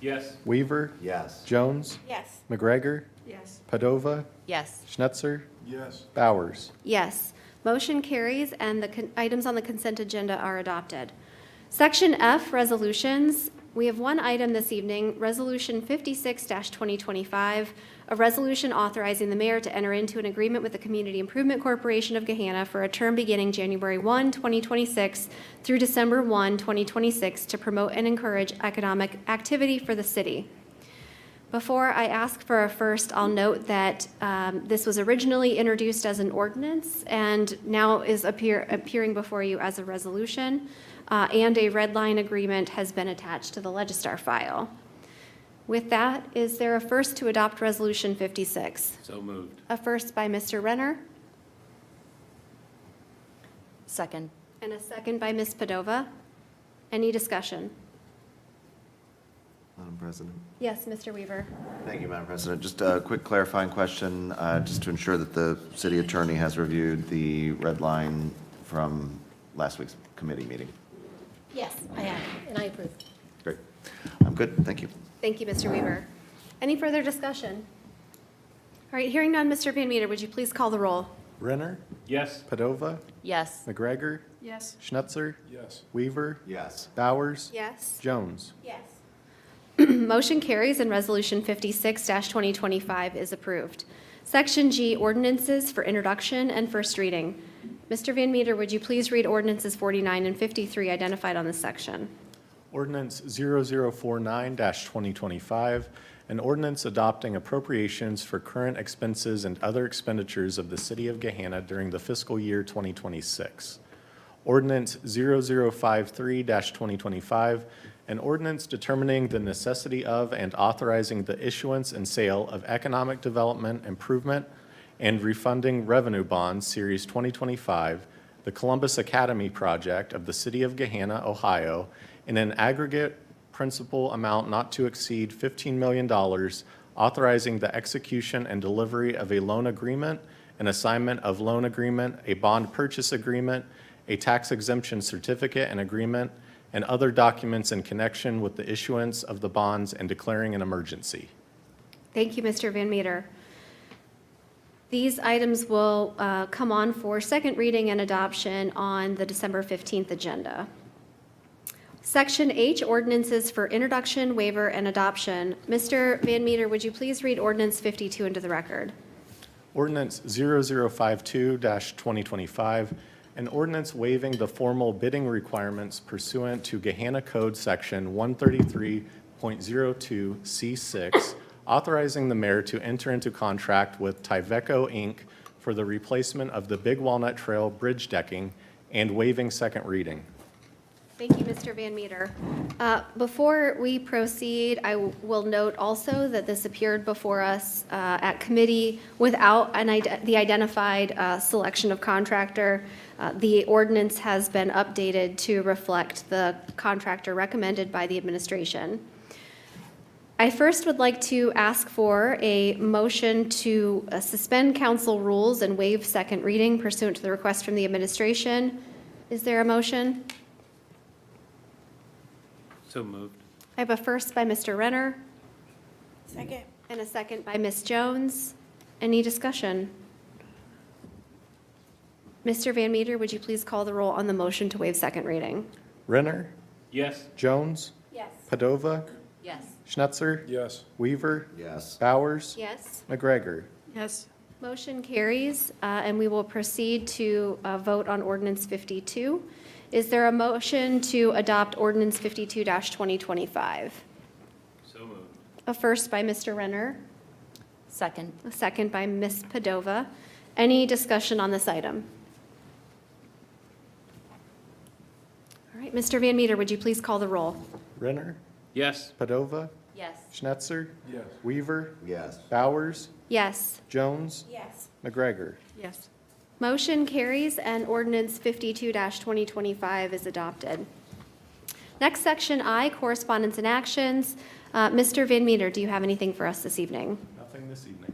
Yes. Weaver, Yes. Jones, Yes. McGregor, Yes. Padova, Yes. Schnetzer, Yes. Bowers. Yes. Motion carries, and the con- items on the consent agenda are adopted. Section F, Resolutions. We have one item this evening, Resolution 56-2025, a resolution authorizing the mayor to enter into an agreement with the Community Improvement Corporation of Gehanna for a term beginning January 1, 2026 through December 1, 2026, to promote and encourage economic activity for the city. Before I ask for a first, I'll note that um, this was originally introduced as an ordinance and now is appear, appearing before you as a resolution, uh, and a red line agreement has been attached to the Legistar file. With that, is there a first to adopt Resolution 56? So moved. A first by Mr. Renner Second. and a second by Ms. Padova. Any discussion? Madam President. Yes, Mr. Weaver? Thank you, Madam President. Just a quick clarifying question, uh, just to ensure that the city attorney has reviewed the red line from last week's committee meeting. Yes, I have, and I approve. Great. I'm good, thank you. Thank you, Mr. Weaver. Any further discussion? All right, hearing none, Mr. Van Meter, would you please call the roll? Renner, Yes. Padova, Yes. McGregor, Yes. Schnetzer, Yes. Weaver, Yes. Bowers, Yes. Jones. Yes. Motion carries and Resolution 56-2025 is approved. Section G, ordinances for introduction and first reading. Mr. Van Meter, would you please read ordinances 49 and 53 identified on this section? Ordinance 0049-2025, an ordinance adopting appropriations for current expenses and other expenditures of the City of Gahanna during the fiscal year 2026. Ordinance 0053-2025, an ordinance determining the necessity of and authorizing the issuance and sale of economic development improvement and refunding revenue bonds, Series 2025, the Columbus Academy project of the City of Gahanna, Ohio, in an aggregate principal amount not to exceed $15 million, authorizing the execution and delivery of a loan agreement, an assignment of loan agreement, a bond purchase agreement, a tax exemption certificate and agreement, and other documents in connection with the issuance of the bonds and declaring an emergency. Thank you, Mr. Van Meter. These items will uh, come on for second reading and adoption on the December 15th agenda. Section H, ordinances for introduction, waiver, and adoption. Mr. Van Meter, would you please read ordinance 52 into the record? Ordinance 0052-2025, an ordinance waiving the formal bidding requirements pursuant to Gehanna Code Section 133.02C6, authorizing the mayor to enter into contract with Tyveco, Inc. for the replacement of the Big Walnut Trail bridge decking and waiving second reading. Thank you, Mr. Van Meter. Uh, Before we proceed, I w- will note also that this appeared before us uh, at committee without an ide- the identified uh, selection of contractor. Uh, The ordinance has been updated to reflect the contractor recommended by the administration. I first would like to ask for a motion to uh, suspend council rules and waive second reading pursuant to the request from the administration. Is there a motion? So moved. I have a first by Mr. Renner Second. and a second by Ms. Jones. Any discussion? Mr. Van Meter, would you please call the roll on the motion to waive second reading? Renner, Yes. Jones, Yes. Padova, Yes. Schnetzer, Yes. Weaver, Yes. Bowers, Yes. McGregor. Yes. Motion carries, uh, and we will proceed to uh, vote on ordinance 52. Is there a motion to adopt ordinance 52-2025? So moved. A first by Mr. Renner, Second. a second by Ms. Padova. Any discussion on this item? All right, Mr. Van Meter, would you please call the roll? Renner, Yes. Padova, Yes. Schnetzer, Yes. Weaver, Yes. Bowers, Yes. Jones, Yes. McGregor. Yes. Motion carries and ordinance 52-2025 is adopted. Next section I, correspondence and actions. Uh, Mr. Van Meter, do you have anything for us this evening? Nothing this evening.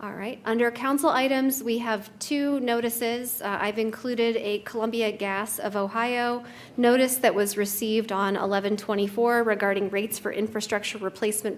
All right, under council items, we have two notices. Uh, I've included a Columbia Gas of Ohio notice that was received on 1124 regarding rates for infrastructure replacement